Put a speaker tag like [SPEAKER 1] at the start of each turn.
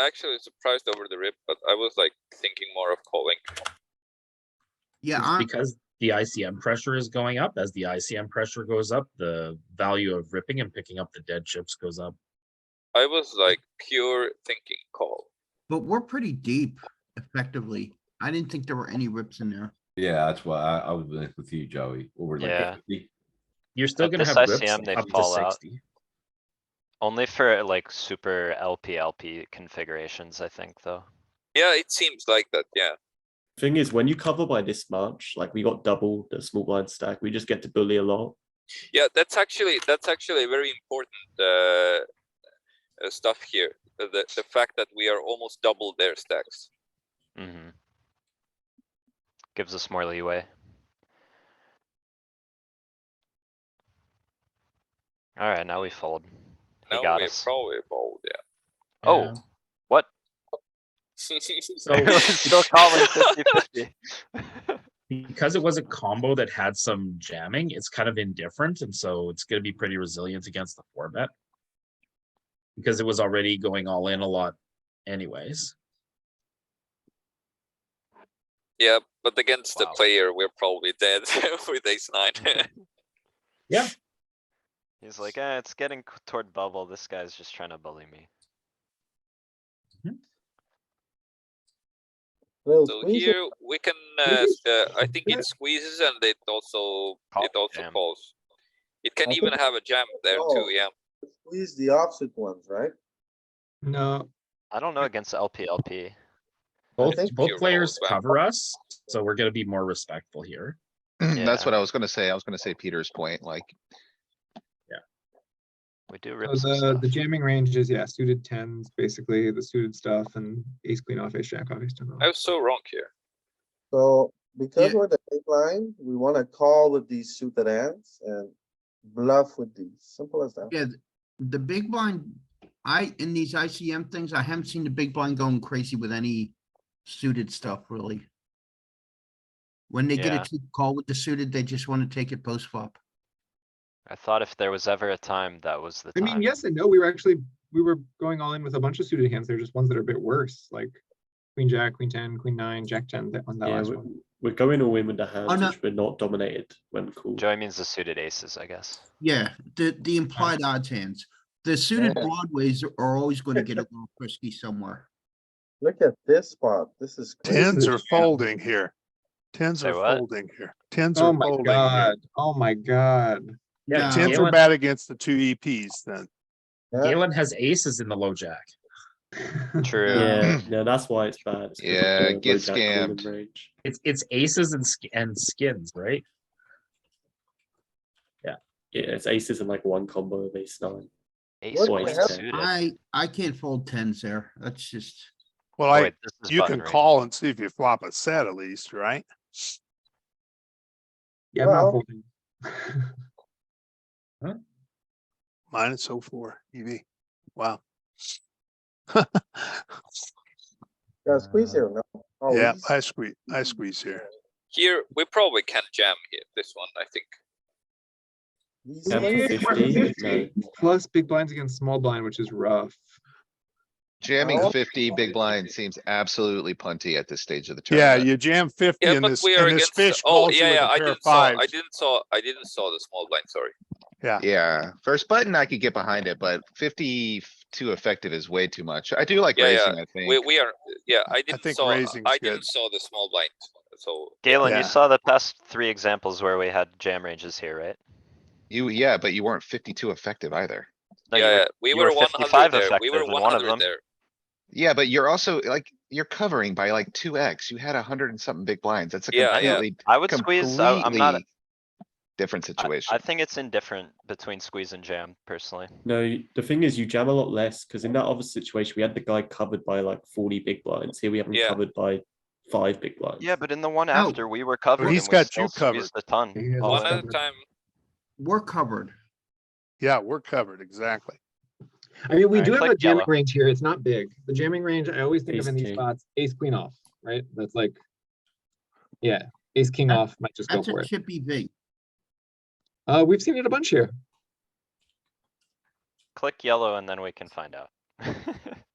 [SPEAKER 1] actually surprised over the rip, but I was like thinking more of calling.
[SPEAKER 2] Yeah,
[SPEAKER 3] It's
[SPEAKER 2] I'm,
[SPEAKER 3] because the ICM pressure is going up. As the ICM pressure goes up, the value of ripping and picking up the dead chips goes up.
[SPEAKER 1] I was like pure thinking call.
[SPEAKER 2] but we're pretty deep effectively. I didn't think there were any rips in there.
[SPEAKER 4] Yeah, that's why I, I was like with you, Joey. Or we're like
[SPEAKER 5] Yeah.
[SPEAKER 4] 50.
[SPEAKER 3] You're still
[SPEAKER 5] At
[SPEAKER 3] gonna
[SPEAKER 5] this
[SPEAKER 3] have rips
[SPEAKER 5] ICM, they
[SPEAKER 3] up to
[SPEAKER 5] fall out.
[SPEAKER 3] sixty.
[SPEAKER 5] Only for like super LP LP configurations, I think, though.
[SPEAKER 1] Yeah, it seems like that. Yeah.
[SPEAKER 6] Thing is, when you cover by this much, like we got double the small blind stack, we just get to bully a lot.
[SPEAKER 1] Yeah, that's actually that's actually very important uh, uh, stuff here. uh, The the fact that we are almost double their stacks.
[SPEAKER 5] Mm-hmm. Gives us more leeway. Alright, now we fold. He
[SPEAKER 1] Now
[SPEAKER 5] got
[SPEAKER 1] we
[SPEAKER 5] us.
[SPEAKER 1] probably fold, yeah.
[SPEAKER 5] Oh, what?
[SPEAKER 3] So
[SPEAKER 5] We're Still calling 50-50.
[SPEAKER 3] because it was a combo that had some jamming, it's kind of indifferent, and so it's gonna be pretty resilient against the four bet. Because it was already going all in a lot anyways.
[SPEAKER 1] Yeah, but against the
[SPEAKER 5] Wow.
[SPEAKER 1] player, we're probably dead with ace nine.
[SPEAKER 5] He's like, eh, it's getting c- toward bubble. This guy's just trying to bully me.
[SPEAKER 7] Well,
[SPEAKER 1] So
[SPEAKER 7] squeeze it.
[SPEAKER 1] here we can, uh, s- uh, I think it squeezes and it also,
[SPEAKER 5] Call
[SPEAKER 1] it also
[SPEAKER 5] jam.
[SPEAKER 1] calls. It can
[SPEAKER 7] I
[SPEAKER 1] even
[SPEAKER 7] think-
[SPEAKER 1] have a jam there too,
[SPEAKER 7] Oh.
[SPEAKER 1] yeah.
[SPEAKER 7] squeeze the opposite ones, right?
[SPEAKER 8] No,
[SPEAKER 5] I don't know against LP LP.
[SPEAKER 3] Both
[SPEAKER 7] think
[SPEAKER 1] you're
[SPEAKER 3] both players
[SPEAKER 1] right.
[SPEAKER 3] cover us, so we're gonna be more respectful here.
[SPEAKER 9] That's
[SPEAKER 5] Yeah.
[SPEAKER 9] what I was gonna say. I was gonna say Peter's point, like,
[SPEAKER 5] We do
[SPEAKER 8] uh,
[SPEAKER 5] rip some
[SPEAKER 8] the,
[SPEAKER 5] stuff.
[SPEAKER 8] the jamming range is, yeah, suited tens, basically, the suited stuff and ace queen off, ace jack off, ace ten
[SPEAKER 1] I
[SPEAKER 8] off.
[SPEAKER 1] was so wrong here.
[SPEAKER 7] So because
[SPEAKER 2] Yeah.
[SPEAKER 7] we're the big line, we wanna call with these suited hands and bluff with these, simple as that.
[SPEAKER 2] Yeah, th- the big blind, I, in these ICM things, I haven't seen the big blind going crazy with any suited stuff really. When they get
[SPEAKER 5] Yeah.
[SPEAKER 2] a cheap call with the suited, they just want to take it post flop.
[SPEAKER 5] I thought if there was ever a time, that was the
[SPEAKER 8] I
[SPEAKER 5] time.
[SPEAKER 8] mean, yes and no, we were actually, we were going all in with a bunch of suited hands, they're just ones that are a bit worse, like queen jack, queen ten, queen nine, jack ten, that on that
[SPEAKER 6] Yeah,
[SPEAKER 8] last
[SPEAKER 6] we-
[SPEAKER 8] one.
[SPEAKER 6] we're going all in with the hands,
[SPEAKER 2] no.
[SPEAKER 6] which we're not dominated when called.
[SPEAKER 5] Joey means the suited aces, I guess.
[SPEAKER 2] Yeah, the, the implied odds hands. The suited
[SPEAKER 7] Yeah.
[SPEAKER 2] broadways are always going to get a little frisky somewhere.
[SPEAKER 7] Look at this spot, this is
[SPEAKER 10] Tens
[SPEAKER 7] crazy.
[SPEAKER 10] are folding here. Tens
[SPEAKER 5] Say
[SPEAKER 10] are
[SPEAKER 5] what?
[SPEAKER 10] folding here. Tens
[SPEAKER 8] Oh
[SPEAKER 10] are
[SPEAKER 8] my
[SPEAKER 10] folding. here.
[SPEAKER 8] god, oh my god.
[SPEAKER 2] Yeah,
[SPEAKER 10] Tens
[SPEAKER 3] Galen-
[SPEAKER 10] are bad against the two EPs then.
[SPEAKER 7] Yeah.
[SPEAKER 3] Galen has aces in the low jack.
[SPEAKER 5] True.
[SPEAKER 6] Yeah, yeah, that's why it's bad. It's 'cause of
[SPEAKER 9] Yeah,
[SPEAKER 6] the low
[SPEAKER 9] get
[SPEAKER 6] jack call in
[SPEAKER 9] scammed.
[SPEAKER 6] range.
[SPEAKER 3] It's it's aces and sk- and skins, right?
[SPEAKER 6] Yeah, it's aces and like one combo of ace nine.
[SPEAKER 5] Ace
[SPEAKER 7] What
[SPEAKER 5] queen
[SPEAKER 6] the hell?
[SPEAKER 5] suited.
[SPEAKER 2] I, I can't fold tens there. That's just,
[SPEAKER 10] Well,
[SPEAKER 5] Oh,
[SPEAKER 10] I,
[SPEAKER 5] wait, this is
[SPEAKER 10] you
[SPEAKER 5] button
[SPEAKER 10] can
[SPEAKER 5] range.
[SPEAKER 10] call and see if you flop a set at least, right?
[SPEAKER 8] Yeah, I'm
[SPEAKER 7] Well-
[SPEAKER 8] not folding.
[SPEAKER 10] Minus oh four EV. Wow.
[SPEAKER 7] Gotta squeeze here, no? Oh,
[SPEAKER 10] Yeah,
[SPEAKER 7] Always.
[SPEAKER 10] I squeeze, I squeeze here.
[SPEAKER 1] Here, we probably can jam here, this one, I think.
[SPEAKER 7] These
[SPEAKER 6] Yeah,
[SPEAKER 7] hands-
[SPEAKER 6] but 50, no.
[SPEAKER 8] Plus big blinds against small blind, which is rough.
[SPEAKER 9] jamming
[SPEAKER 7] Oh.
[SPEAKER 9] fifty big blind seems absolutely punty at this stage of the
[SPEAKER 10] Yeah,
[SPEAKER 9] tournament.
[SPEAKER 10] you jam fifty
[SPEAKER 1] Yeah,
[SPEAKER 10] and
[SPEAKER 1] but
[SPEAKER 10] this,
[SPEAKER 1] we are
[SPEAKER 10] and this
[SPEAKER 1] against, the-
[SPEAKER 10] fish
[SPEAKER 1] oh,
[SPEAKER 10] calls you
[SPEAKER 1] yeah,
[SPEAKER 10] with
[SPEAKER 1] yeah,
[SPEAKER 10] a
[SPEAKER 1] I
[SPEAKER 10] pair of
[SPEAKER 1] didn't saw, I
[SPEAKER 10] fives.
[SPEAKER 1] didn't saw, I didn't saw the small blind, sorry.
[SPEAKER 9] Yeah, first button I could get behind it, but fifty-two effective is way too much. I do like
[SPEAKER 1] Yeah, yeah.
[SPEAKER 9] raising, I
[SPEAKER 1] We,
[SPEAKER 9] think.
[SPEAKER 1] we are, yeah, I didn't
[SPEAKER 10] think
[SPEAKER 1] saw,
[SPEAKER 10] raising's
[SPEAKER 1] I
[SPEAKER 10] good.
[SPEAKER 1] didn't saw the small blind, so.
[SPEAKER 5] Galen,
[SPEAKER 10] Yeah.
[SPEAKER 5] you saw the past three examples where we had jam ranges here, right?
[SPEAKER 9] You, yeah, but you weren't fifty-two effective either.
[SPEAKER 5] No, you
[SPEAKER 1] yeah,
[SPEAKER 5] were-
[SPEAKER 1] yeah, we
[SPEAKER 5] you
[SPEAKER 1] were
[SPEAKER 5] were
[SPEAKER 1] one
[SPEAKER 5] 55
[SPEAKER 1] hundred there, we were
[SPEAKER 5] effective in
[SPEAKER 1] one
[SPEAKER 5] one of
[SPEAKER 1] hundred
[SPEAKER 5] them.
[SPEAKER 1] there.
[SPEAKER 9] Yeah, but you're also like, you're covering by like two X. You had a hundred and something big blinds. That's a
[SPEAKER 1] Yeah, yeah.
[SPEAKER 9] completely,
[SPEAKER 5] I would squeeze, I- I'm not,
[SPEAKER 9] completely different
[SPEAKER 5] I,
[SPEAKER 9] situation.
[SPEAKER 5] I think it's indifferent between squeeze and jam personally.
[SPEAKER 6] No, you- the thing is, you jam a lot less because in that other situation, we had the guy covered by like 40 big blinds. Here we have him
[SPEAKER 1] Yeah.
[SPEAKER 6] covered by five big blinds.
[SPEAKER 5] Yeah, but in the one
[SPEAKER 2] No.
[SPEAKER 5] after, we were covered and we
[SPEAKER 10] he's got
[SPEAKER 5] still
[SPEAKER 10] you covered.
[SPEAKER 5] squeezed a ton.
[SPEAKER 8] He has
[SPEAKER 5] all
[SPEAKER 1] One
[SPEAKER 5] in.
[SPEAKER 1] at a
[SPEAKER 8] Awesome.
[SPEAKER 1] time,
[SPEAKER 2] we're covered.
[SPEAKER 10] Yeah, we're covered, exactly.
[SPEAKER 8] I mean, we
[SPEAKER 5] Alright,
[SPEAKER 8] do have
[SPEAKER 5] click
[SPEAKER 8] a jamming
[SPEAKER 5] yellow.
[SPEAKER 8] range here. It's not big. The jamming range, I always think of
[SPEAKER 6] Ace
[SPEAKER 8] in these
[SPEAKER 6] king.
[SPEAKER 8] spots, ace queen off, right? That's like, yeah, ace king
[SPEAKER 2] That-
[SPEAKER 6] Uh,
[SPEAKER 8] off might just go
[SPEAKER 2] That's
[SPEAKER 8] for
[SPEAKER 2] a
[SPEAKER 8] it.
[SPEAKER 2] chippy V.
[SPEAKER 8] Uh, we've seen it a bunch here.
[SPEAKER 5] Click yellow and then we can find out.